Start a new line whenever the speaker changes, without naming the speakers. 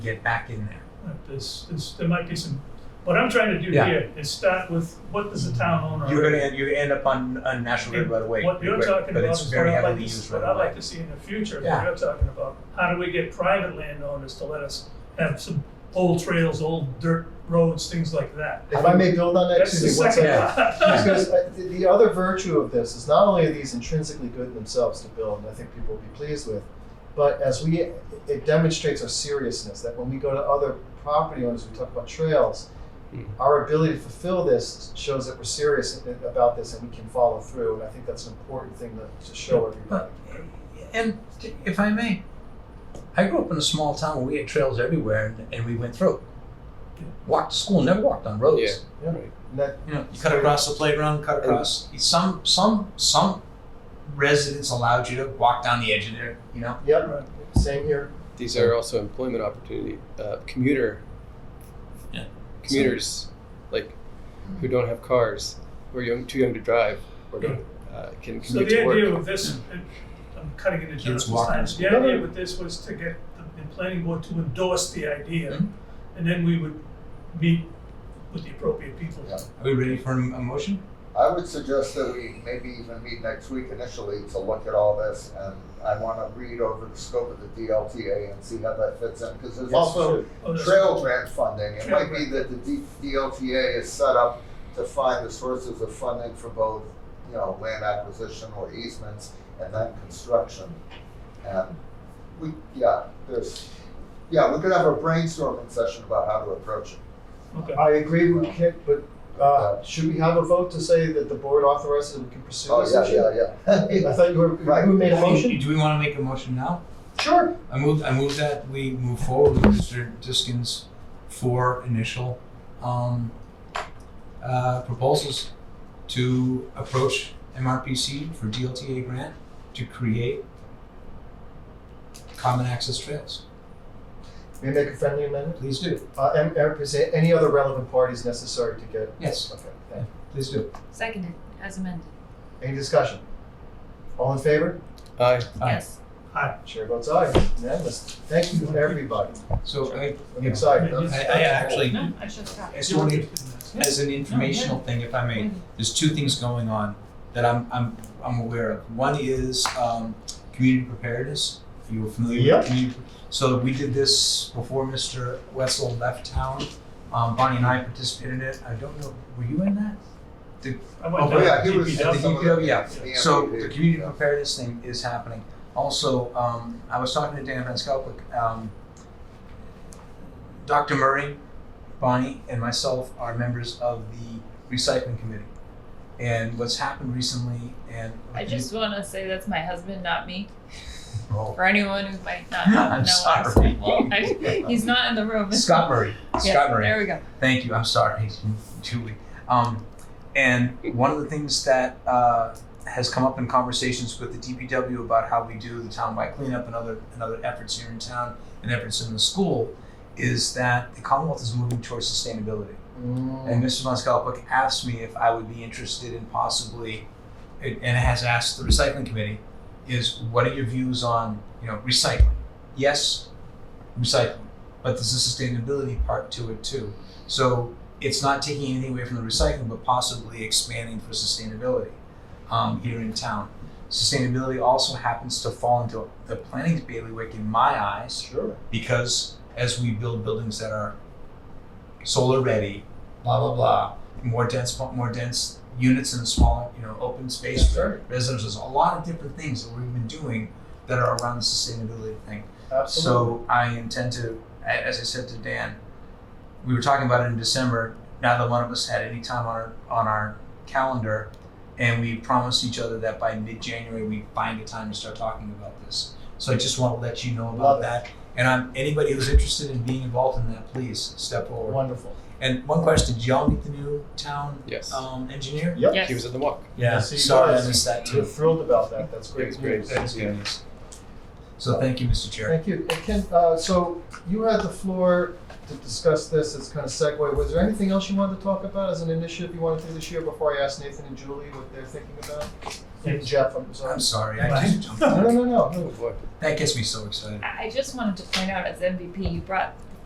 get back in there.
Right, There's, there's, there might be some, what I'm trying to do
Yeah.
here is start with, what does the town owner?
You're gonna end, you end up on, on National Grid right away.
What you're
but-
talking
but
about
it's
is what
very
I'd like
heavily
to,
used
see-
right
what I'd
away.
like to see in the future, what
Yeah.
you're talking about. How do we get private landowners to let us have some old trails, old dirt roads, things like that?
If I may build on that,
That's the
Suzie, one
second.
second.
Yeah.
Because uh, the- the other virtue of this is not only are these intrinsically good in themselves to build, and I think people will be pleased with, but as we, it demonstrates our seriousness that when we go to other property owners, we talk about trails,
Mhm.
our ability to fulfill this shows that we're serious a- about this and we can follow through. And I think that's an important thing to, to show everybody.
But, and if I may, I grew up in a small town where we had trails everywhere and, and we went through. Walked to school, never walked on roads.
Yeah.
And that,
You know, you cut across the playground, cut across, some, some, some residents allowed you to walk down the edge of there, you know?
yep, same here.
These are also employment opportunity uh, commuter
Yeah.
commuters like who don't have cars or young too young to drive or don't uh, can
So
commute
the
to work.
idea with this, and I'm cutting into
Kids
Jonathan's
walking
time,
to
the idea with this was to get the the planning board to endorse the idea.
Mhm.
And then we would meet with the appropriate people.
Yeah.
Are we ready for a a motion?
I would suggest that we maybe even meet next week initially to look at all this, and I wanna read over the scope of the DLTA and see how that fits in, because there's also
Oh, that's-
trail grant funding. It
Trail
might be that the D- DLTA is set up to find the sources of funding for both, you know, land acquisition or easements, and then construction. And we, yeah, there's, yeah, we could have a brainstorming session about how to approach it.
Okay.
I agree with Kit, but uh, should we have a vote to say that the board authorizes and we can pursue
Oh,
this
yeah,
issue?
yeah, yeah.
I thought you were,
Right.
who made a motion?
Do we wanna make a motion now?
Sure.
I move, I move that we move forward with Mr. Diskins for initial, um, uh, proposals to approach MRPC for DLTA grant to create common access trails.
May I make a friendly amendment?
Please do,
Uh, and, and present any other relevant parties necessary to get,
yes,
okay, thank
please do.
Seconded, as amended.
you. Any discussion? All in favor?
Aye.
Aye.
Yes.
Chair votes aye, unanimous. Thank you, everybody.
So I,
I'm excited.
I, I actually,
No, I should stop.
as one, as an informational thing, if I may, there's two things going on that I'm I'm I'm aware of. One is um community preparedness. If you were familiar
Yep.
with community so we did this before Mr. Wetzel left town. Um Bonnie and I participated in it. I don't know were you in that?
I went
Oh,
down
yeah,
to
he was-
DPW.
At the DPW, yeah.
Yeah.
So the community
Yeah.
preparedness thing is happening. Also, um I was talking to Dan Van Skelwick, um Dr. Murray, Bonnie and myself are members of the recycling committee. And what's happened recently and
I just want to say that's my husband, not me.
Oh.
For anyone who might not know.
I'm
us.
sorry.
I- He's not in the room.
Scott Murray.
Yeah,
Scott Murray.
There we go.
Thank you. I'm sorry, Julie. Um, and one of the things that uh, has come up in conversations with the DPW about how we do the townwide cleanup and other and other efforts here in town and efforts in the school is that the Commonwealth is moving towards sustainability. And
Mm,
Mr. Von Skalpik asked me if I would be interested in possibly, and and has asked the recycling committee, is what are your views on, you know, recycling? Yes, recycling, but there's a sustainability part to it too. So it's not taking anything away from the recycling, but possibly expanding for sustainability um, here in town. Sustainability also happens to fall into the planning's bailiwick in my eyes
Sure.
because as we build buildings that are solar ready, blah blah blah, more dense, more dense units in a smaller, you know, open space for residents. There's a lot of different things that we've been doing that are around the sustainability thing. So
Absolutely.
I intend to, a- as I said to Dan, we were talking about it in December. Neither one of us had any time on our on our calendar, and we promised each other that by mid-January we find a time to start talking about this. So I just want to let you know about
Love it.
that. And I'm anybody who's interested in being involved in that, please step forward.
Wonderful.
And one question: Did y'all meet the new town
Yes.
um, engineer?
Yep.
He was
Yes.
on the walk.
Yeah.
Sorry, I missed that
We're
too.
thrilled about that. That's
It was
great
great.
news.
That's good news. So thank you, Mr. Chair.
Thank you. And Ken, uh, so you had the floor to discuss this as kind of segue. Was there anything else you wanted to talk about as an initiative you want to do this year before I ask Nathan and Julie what they're thinking about? And Jeff, I'm sorry.
I'm sorry, I just jumped.
No,
in.
no, no, no.
Oh boy.
That gets me so excited.
I I just wanted to point out as MVP, you brought